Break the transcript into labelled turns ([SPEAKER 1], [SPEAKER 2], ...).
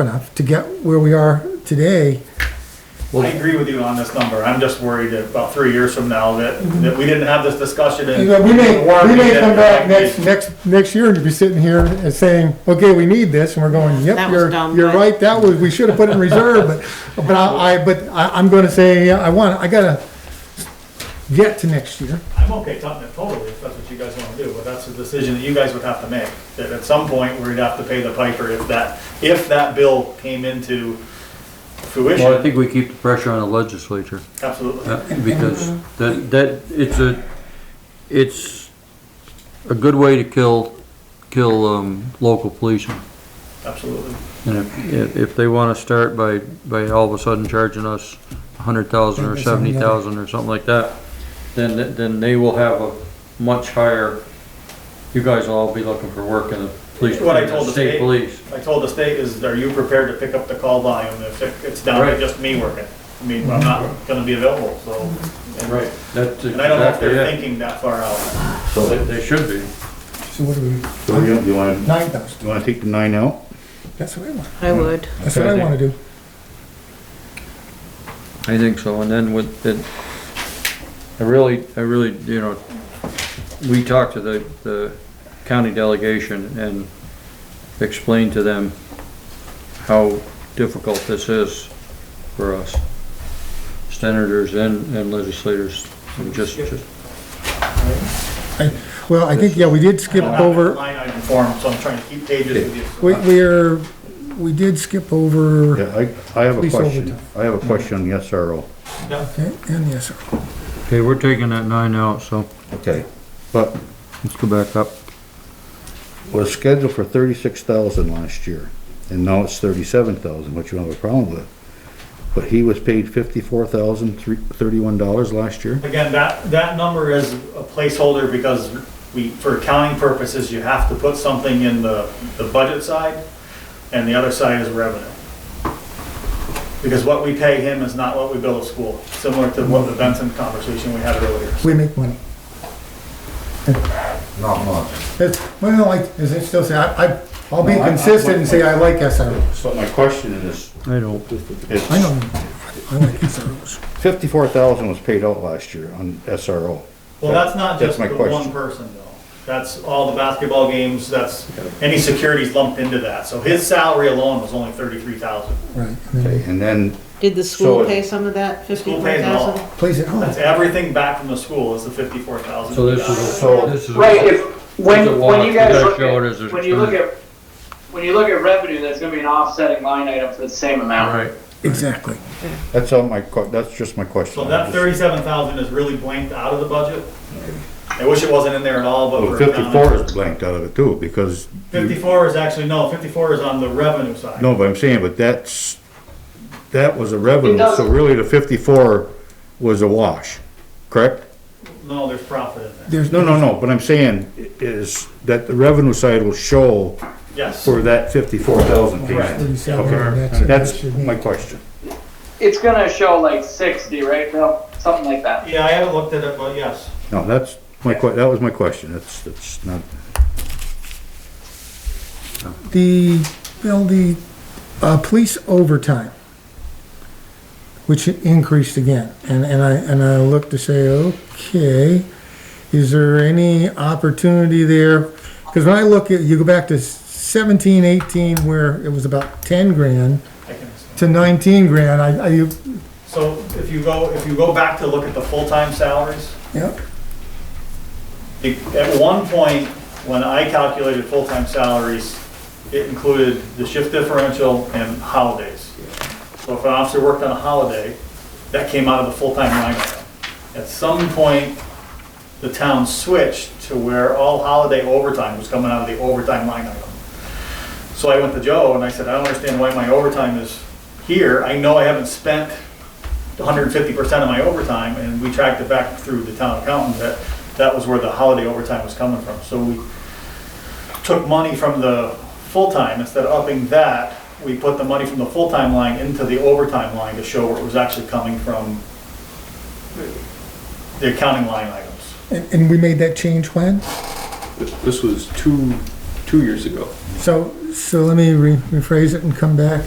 [SPEAKER 1] enough to get where we are today.
[SPEAKER 2] I agree with you on this number, I'm just worried that about three years from now that, that we didn't have this discussion and.
[SPEAKER 1] Mm-hmm. You know, we may,
[SPEAKER 2] Warren,
[SPEAKER 1] we may
[SPEAKER 2] didn't
[SPEAKER 1] come back
[SPEAKER 2] like
[SPEAKER 1] next,
[SPEAKER 2] me.
[SPEAKER 1] next, next year and be sitting here and saying, okay, we need this, and we're going,
[SPEAKER 3] That
[SPEAKER 1] yep,
[SPEAKER 3] was
[SPEAKER 1] you're,
[SPEAKER 3] dumb,
[SPEAKER 1] you're
[SPEAKER 3] but-
[SPEAKER 1] right, that was, we should have put it in reserve, but, but I, I- but I, I'm gonna say, I want, I gotta get to next year.
[SPEAKER 2] I'm okay cutting it totally, if that's what you guys wanna do, but that's a decision that you guys would have to make. That at some point, we'd have to pay the piper if that, if that bill came into
[SPEAKER 4] Well, I
[SPEAKER 2] fruition,
[SPEAKER 4] think we keep the pressure on the legislature,
[SPEAKER 2] absolutely.
[SPEAKER 4] uh, because that, that, it's a, it's a good way to kill, kill, um, local policing.
[SPEAKER 2] Absolutely.
[SPEAKER 4] And if, if, if they wanna start by, by all of a sudden charging us a hundred thousand or seventy thousand or something like that, then, then they will have a much higher, you guys will all be looking for work in the police,
[SPEAKER 2] What I told the
[SPEAKER 4] state
[SPEAKER 2] state.
[SPEAKER 4] police.
[SPEAKER 2] I told the state is, are you prepared to pick up the call volume if it- it's down to
[SPEAKER 4] Right.
[SPEAKER 2] just me working? I mean, I'm not gonna be available, so. and-
[SPEAKER 4] That's
[SPEAKER 2] And I don't know if
[SPEAKER 4] exactly
[SPEAKER 2] they're
[SPEAKER 4] it.
[SPEAKER 2] thinking that far out.
[SPEAKER 4] They, they should be.
[SPEAKER 1] So what do
[SPEAKER 5] So
[SPEAKER 1] we,
[SPEAKER 5] you, you wanna,
[SPEAKER 1] nine thousand,
[SPEAKER 5] you wanna take the nine out?
[SPEAKER 1] that's what I want,
[SPEAKER 3] I would.
[SPEAKER 1] that's what I wanna do.
[SPEAKER 4] I think so, and then with, it, I really, I really, you know, we talked to the, the county delegation and explained to them how difficult this is for us, senators and, and legislators, and just, just,
[SPEAKER 1] I, well, I think, yeah, we did skip
[SPEAKER 2] I don't have it
[SPEAKER 1] over.
[SPEAKER 2] Line item form, so I'm trying to keep pages with you.
[SPEAKER 1] We, we're, we did skip over,
[SPEAKER 5] Yeah, I, I have a
[SPEAKER 1] Police
[SPEAKER 5] question.
[SPEAKER 1] overtime.
[SPEAKER 5] I have a question on the SRO.
[SPEAKER 2] Yeah.
[SPEAKER 1] okay, and yes, sir.
[SPEAKER 4] okay, we're taking that nine out, so
[SPEAKER 5] Okay. But
[SPEAKER 4] let's go back up.
[SPEAKER 5] was scheduled for thirty-six thousand last year, and now it's thirty-seven thousand, which you have a problem with. But he was paid fifty-four thousand, thirty-one dollars last year?
[SPEAKER 2] Again, that, that number is a placeholder because we, for accounting purposes, you have to put something in the, the budget side and the other side is revenue. Because what we pay him is not what we bill the school, similar to what the Benson conversation we had earlier.
[SPEAKER 1] We make money.
[SPEAKER 6] Not much.
[SPEAKER 1] It's, well, like, is it still say, I, I- I'll be consistent and say I like SROs.
[SPEAKER 5] So my question is,
[SPEAKER 4] I don't,
[SPEAKER 1] I know, I like SROs.
[SPEAKER 5] fifty-four thousand was paid out last year on SRO.
[SPEAKER 2] Well, that's not
[SPEAKER 5] That's
[SPEAKER 2] just
[SPEAKER 5] my
[SPEAKER 2] the
[SPEAKER 5] question.
[SPEAKER 2] one person though. That's all the basketball games, that's, any security's lumped into that. So his salary alone was only thirty-three thousand.
[SPEAKER 1] Right,
[SPEAKER 4] Mm-hmm.
[SPEAKER 5] Okay, and then,
[SPEAKER 3] Did the school
[SPEAKER 5] So-
[SPEAKER 3] pay some of that
[SPEAKER 2] School
[SPEAKER 3] fifty-four
[SPEAKER 2] pays it all.
[SPEAKER 3] thousand?
[SPEAKER 1] place at home.
[SPEAKER 2] That's everything back from the school is the fifty-four thousand.
[SPEAKER 4] so this is
[SPEAKER 5] So-
[SPEAKER 4] a, this is a.
[SPEAKER 7] Right, if,
[SPEAKER 4] It's a
[SPEAKER 7] when,
[SPEAKER 4] lot.
[SPEAKER 7] when you
[SPEAKER 4] You
[SPEAKER 7] guys
[SPEAKER 4] gotta
[SPEAKER 7] look
[SPEAKER 4] show it as a
[SPEAKER 7] at, when you look
[SPEAKER 4] percentage.
[SPEAKER 7] at, when you look at revenue, there's gonna be an offsetting line item for the same
[SPEAKER 4] All
[SPEAKER 7] amount.
[SPEAKER 4] right,
[SPEAKER 1] Exactly.
[SPEAKER 5] that's all my, que- that's just my question.
[SPEAKER 2] So that thirty-seven thousand is really blanked out of the budget. I wish it wasn't in there at all, but
[SPEAKER 5] Well,
[SPEAKER 2] we're down.
[SPEAKER 5] Oh, Fifty-four is blanked out of it too, because. you-
[SPEAKER 2] Fifty-four is actually, no, fifty-four is on the revenue side.
[SPEAKER 5] No, but I'm saying, but that's, that was a revenue,
[SPEAKER 7] It does-
[SPEAKER 5] so really the fifty-four was a wash, correct?
[SPEAKER 2] No, there's profit in there.
[SPEAKER 1] There's,
[SPEAKER 5] No, no, no, but I'm saying i- is that the revenue side will show
[SPEAKER 2] Yes,
[SPEAKER 5] for that fifty-four thousand
[SPEAKER 2] Correct.
[SPEAKER 5] piece.
[SPEAKER 1] Okay.
[SPEAKER 5] Okay, that's my question.
[SPEAKER 7] It's gonna show like sixty, right, Bill? Something like that.
[SPEAKER 2] yeah, I haven't looked at it, but yes.
[SPEAKER 5] No, that's my que, that was my question, that's, that's not,
[SPEAKER 1] The, well, the, uh, police overtime, which increased again, and, and I, and I looked to say, okay, is there any opportunity there? Because when I look at, you go back to seventeen, eighteen, where it was about ten grand
[SPEAKER 2] I can explain.
[SPEAKER 1] to nineteen grand, I, I, you-
[SPEAKER 2] So if you go, if you go back to look at the full-time salaries,
[SPEAKER 1] yeah,
[SPEAKER 2] the- at one point, when I calculated full-time salaries, it included the shift differential and holidays. So if an officer worked on a holiday, that came out of the full-time line item. At some point, the town switched to where all holiday overtime was coming out of the overtime line item. So I went to Joe and I said, I don't understand why my overtime is here. I know I haven't spent 150% of my overtime, and we tracked it back through the town accountant that that was where the holiday overtime was coming from. So we took money from the full-time, instead of upping that, we put the money from the full-time line into the overtime line to show where it was actually coming from the accounting line items.
[SPEAKER 1] and, and we made that change when?
[SPEAKER 8] This was two, two years ago.
[SPEAKER 1] So, so let me re- rephrase it and come back